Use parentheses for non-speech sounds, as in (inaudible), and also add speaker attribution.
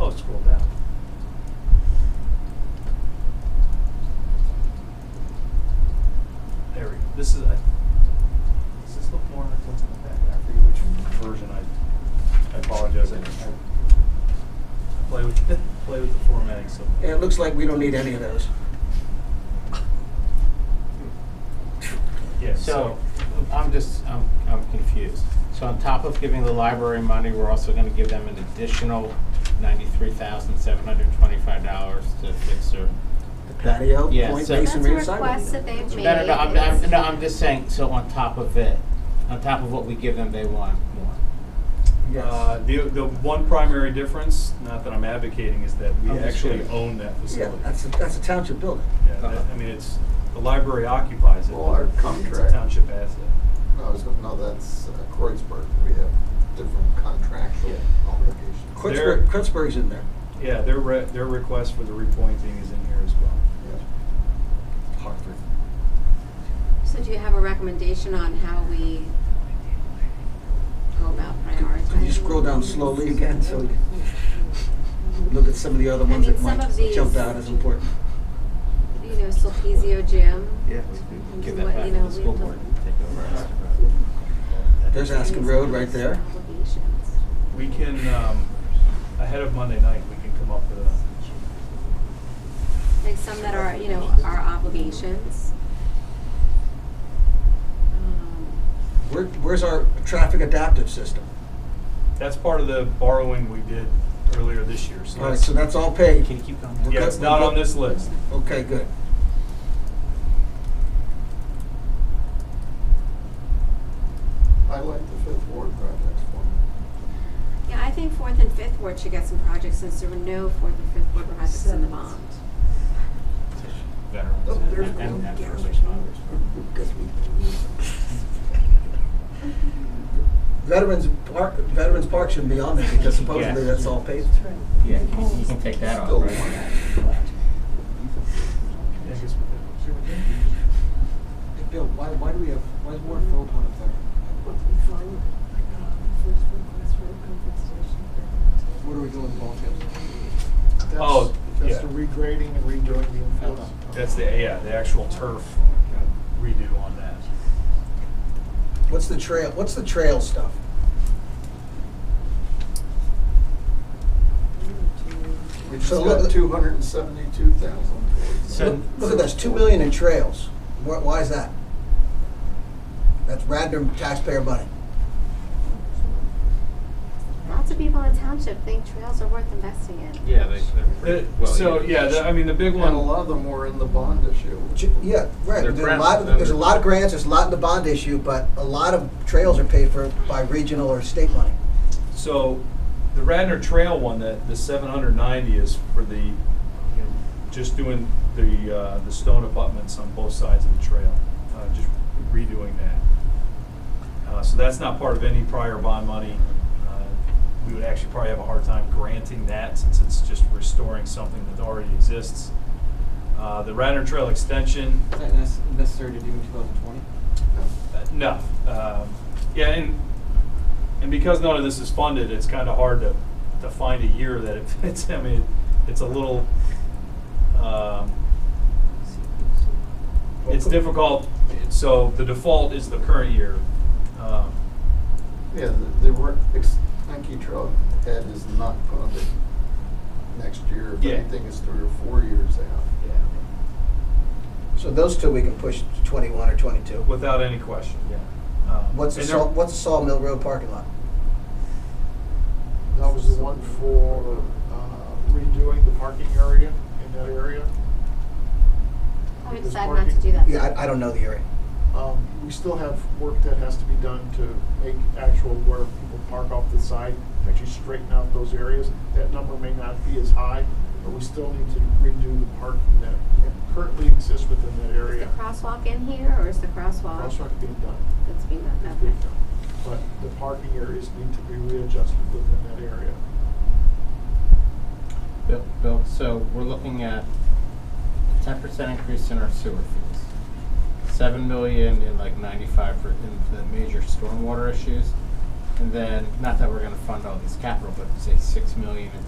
Speaker 1: Oh, play with, (laughs) play with the formatting so.
Speaker 2: And it looks like we don't need any of those.
Speaker 1: Yeah,
Speaker 3: So,
Speaker 1: so,
Speaker 3: I'm just, I'm, I'm confused. So on top of giving the library money, we're also gonna give them an additional ninety-three thousand, seven hundred and twenty-five dollars to fix their.
Speaker 2: The patio,
Speaker 3: Yeah,
Speaker 2: point
Speaker 3: so-
Speaker 2: masonry, and
Speaker 4: That's a
Speaker 2: siding.
Speaker 4: request that they've made.
Speaker 3: No, no, no, I'm,
Speaker 4: It's-
Speaker 3: I'm, no, I'm just saying, so on top of it, on top of what we give them, they want more.
Speaker 1: uh, the, the one primary difference, not that I'm advocating, is that we
Speaker 3: I'm just
Speaker 1: actually
Speaker 3: kidding.
Speaker 1: own that
Speaker 2: Oh, Yeah,
Speaker 1: facility.
Speaker 2: that's a, that's a township building.
Speaker 1: Yeah, that- I mean, it's, the library occupies it.
Speaker 5: Well, our
Speaker 1: It's a
Speaker 5: contract.
Speaker 1: township asset.
Speaker 5: No, I was gonna, no, that's uh, Kreuzberg. We have different contractual
Speaker 1: Yeah.
Speaker 5: obligations.
Speaker 1: There-
Speaker 2: Kreuzberg, Kreuzberg's in there.
Speaker 1: Yeah, their re, their request for the repointing is in here as well.
Speaker 5: Yeah. Hartford.
Speaker 4: So do you have a recommendation on how we go about prioritizing?
Speaker 2: Could you scroll down slowly again so we can look at some of the other
Speaker 4: I
Speaker 2: ones
Speaker 4: mean,
Speaker 2: that
Speaker 4: some
Speaker 2: might
Speaker 4: of these-
Speaker 2: jump out as important?
Speaker 4: You know, Sulpizio Gym.
Speaker 3: Give
Speaker 4: What,
Speaker 3: that back
Speaker 4: you
Speaker 3: to
Speaker 4: know,
Speaker 3: the school
Speaker 4: we
Speaker 3: board
Speaker 4: don't-
Speaker 3: and take over.
Speaker 2: There's Aspen Road right there.
Speaker 4: Obligations.
Speaker 1: We can, um, ahead of Monday night, we can come up with a,
Speaker 4: Like some that are, you know, are obligations. Um,
Speaker 2: Where, where's our traffic adaptive system?
Speaker 1: that's part of the borrowing we did earlier this year, so
Speaker 2: All right,
Speaker 1: that's,
Speaker 2: so that's all paid.
Speaker 3: Can you keep going?
Speaker 1: yeah, it's not on this list.
Speaker 2: Okay, good.
Speaker 5: I like the Fifth Ward project for
Speaker 4: Yeah, I think fourth and fifth ward should get some projects since there were no fourth and fifth ward projects in the bond.
Speaker 3: Veterans
Speaker 5: Oh, there's
Speaker 3: and- and,
Speaker 5: one.
Speaker 3: and first responders.
Speaker 5: Because we,
Speaker 2: Veterans Park, Veterans Park shouldn't be on there because supposedly
Speaker 3: Yes.
Speaker 2: that's all paid.
Speaker 3: Yeah, you can- you can take that
Speaker 5: Still
Speaker 3: off, right?
Speaker 1: Yeah, I guess we could.
Speaker 2: Bill, why, why do we have, why is Ward Philpott up there? What are we doing, ball fields?
Speaker 1: Oh, yeah.
Speaker 6: That's the regrading and redoing the infield.
Speaker 1: That's the, yeah, the actual turf redo on that.
Speaker 2: What's the trail, what's the trail stuff?
Speaker 5: we
Speaker 2: So
Speaker 5: just
Speaker 2: look-
Speaker 5: got two hundred and seventy-two thousand towards.
Speaker 3: So-
Speaker 2: Look look at this, two million in trails. Why, why is that? That's random taxpayer money.
Speaker 4: Lots of people in township think trails are worth investing in.
Speaker 3: Yeah, they, they're pretty
Speaker 1: The-
Speaker 3: well.
Speaker 1: Uh, So,
Speaker 3: used.
Speaker 1: yeah, the- I mean, the big
Speaker 5: And
Speaker 1: one.
Speaker 5: a lot of them were in the bond issue.
Speaker 2: Ch- Yeah, right.
Speaker 3: They're
Speaker 2: There's a
Speaker 3: grants,
Speaker 2: lot,
Speaker 3: they're-
Speaker 2: there's a lot of grants, there's a lot in the bond issue, but a lot of trails are paid for by regional or state money.
Speaker 1: So the Radnor Trail one, that the seven hundred ninety is for the, you know, just doing the, uh, the stone abutments on both sides of the trail, uh, just redoing that. Uh, so that's not part of any prior bond money. Uh, We would actually probably have a hard time granting that since it's just restoring something that already exists. Uh, the Radnor Trail extension,
Speaker 7: Is that nec- necessary to do in 2020?
Speaker 1: uh, No. Um, Yeah, and, and because none of this is funded, it's kind of hard to, to find a year that it (laughs) fits. I mean, it's a little, um, it's difficult. So the default is the current year. Um,
Speaker 5: Yeah, the, the work, ex- Kentucky Trailhead is not funded next year. If
Speaker 1: Yeah.
Speaker 5: anything, it's three or four years out.
Speaker 2: So those two we can push to twenty-one or twenty-two.
Speaker 1: Without any question, yeah. Um,
Speaker 2: What's the
Speaker 1: and there-
Speaker 2: saw, what's the Sawmill Road parking lot?
Speaker 6: That was the one for uh, redoing the parking area in that area.
Speaker 4: I would
Speaker 6: There's
Speaker 4: decide not to
Speaker 6: parking.
Speaker 4: do that.
Speaker 2: Yeah, I, I don't know the area.
Speaker 6: Um, We still have work that has to be done to make actual where people park off the side, actually straighten out those areas. That number may not be as high, but we still need to redo the parking that currently exists within that
Speaker 4: Is the
Speaker 6: area.
Speaker 4: crosswalk in here or is the crosswalk
Speaker 6: Crosswalk being done,
Speaker 4: that's being done?
Speaker 6: being
Speaker 4: Okay.
Speaker 6: done. But the parking areas need to be readjusted within that area.
Speaker 3: Bill, Bill, so we're looking at ten percent increase in our sewer fees. Seven million in like ninety-five for, in the major stormwater issues. And then, not that we're gonna fund all these capital, but say six million in